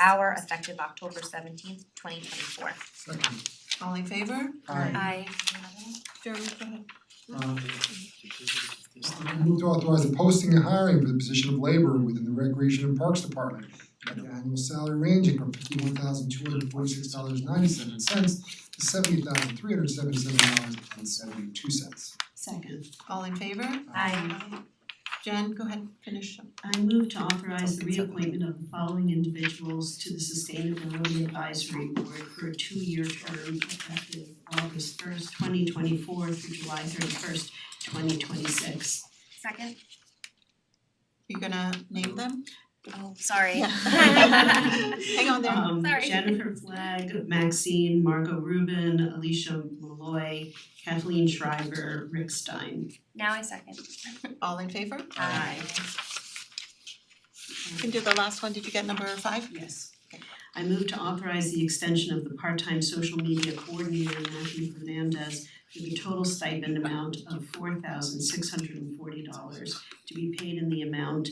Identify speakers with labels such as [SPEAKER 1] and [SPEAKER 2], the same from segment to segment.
[SPEAKER 1] hour effective October seventeenth, twenty twenty four.
[SPEAKER 2] Second.
[SPEAKER 3] All in favor?
[SPEAKER 1] I
[SPEAKER 2] Aye.
[SPEAKER 3] Jeremy, go ahead.
[SPEAKER 2] Um, Move to authorize the posting and hiring for the position of laborer within the Recreation and Parks Department at an annual salary ranging from fifty-one thousand two hundred forty-six dollars ninety-seven cents to seventy thousand three hundred seventy-seven dollars and seventy-two cents.
[SPEAKER 4] Second,
[SPEAKER 3] All in favor?
[SPEAKER 1] Aye.
[SPEAKER 3] Jen, go ahead, finish up.
[SPEAKER 4] I move to authorize the reappointment of the following individuals to the Sustainability Advisory Board for a two-year term effective August first, twenty twenty-four through July thirty-first, twenty twenty-six.
[SPEAKER 1] Second,
[SPEAKER 3] You gonna name them?
[SPEAKER 1] oh, sorry.
[SPEAKER 3] Hang on there.
[SPEAKER 4] Um
[SPEAKER 1] Sorry.
[SPEAKER 4] Jennifer Flagg, Maxine, Margot Rubin, Alicia Malloy, Kathleen Schreiber, Rick Stein.
[SPEAKER 1] Now I second.
[SPEAKER 3] All in favor?
[SPEAKER 1] Aye.
[SPEAKER 3] You can do the last one. Did you get number five?
[SPEAKER 4] Yes. I move to authorize the extension of the part-time social media coordinator Matthew Fernandez with a total stipend amount of four thousand six hundred and forty dollars to be paid in the amount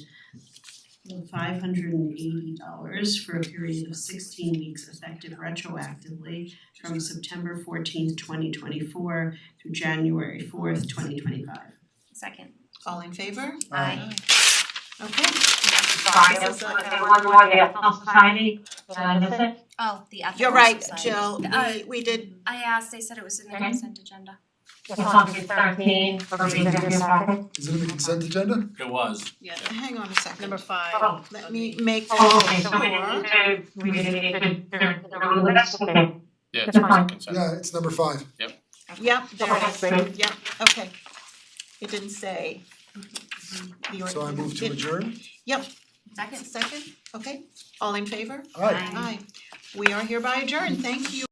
[SPEAKER 4] of five hundred and eighty dollars for a period of sixteen weeks effective retroactively from September fourteenth, twenty twenty-four through January fourth, twenty twenty-five.
[SPEAKER 1] Second.
[SPEAKER 3] All in favor?
[SPEAKER 1] Aye.
[SPEAKER 3] Okay.
[SPEAKER 5] Sorry, there was one more, the Ethel Society, did I miss it?
[SPEAKER 1] Oh, the ethical
[SPEAKER 3] You're right,
[SPEAKER 1] society.
[SPEAKER 3] Jill.
[SPEAKER 1] Uh,
[SPEAKER 3] We we did,
[SPEAKER 1] I asked, they said it was in the
[SPEAKER 5] Okay.
[SPEAKER 1] consent agenda.
[SPEAKER 5] It's on page thirteen, for the executive packet.
[SPEAKER 2] Is it in the consent agenda?
[SPEAKER 6] It was.
[SPEAKER 3] hang on a second.
[SPEAKER 7] Number five.
[SPEAKER 5] Oh,
[SPEAKER 3] Let me make this
[SPEAKER 5] oh, okay, so we didn't
[SPEAKER 3] sure.
[SPEAKER 5] need to, we didn't need to, to, to remove this, okay.
[SPEAKER 6] Yeah,
[SPEAKER 5] it's on
[SPEAKER 2] Yeah, it's number five.
[SPEAKER 3] Yep, there it is.
[SPEAKER 5] Okay.
[SPEAKER 3] Yep, okay. It didn't say. The
[SPEAKER 2] So I move
[SPEAKER 3] ordinance.
[SPEAKER 2] to
[SPEAKER 3] Mm-hmm. Did-
[SPEAKER 2] adjourn.
[SPEAKER 1] Second.
[SPEAKER 3] Second, okay. All in favor?
[SPEAKER 2] All right.
[SPEAKER 1] Aye.
[SPEAKER 3] Aye. We are hereby adjourned. Thank you.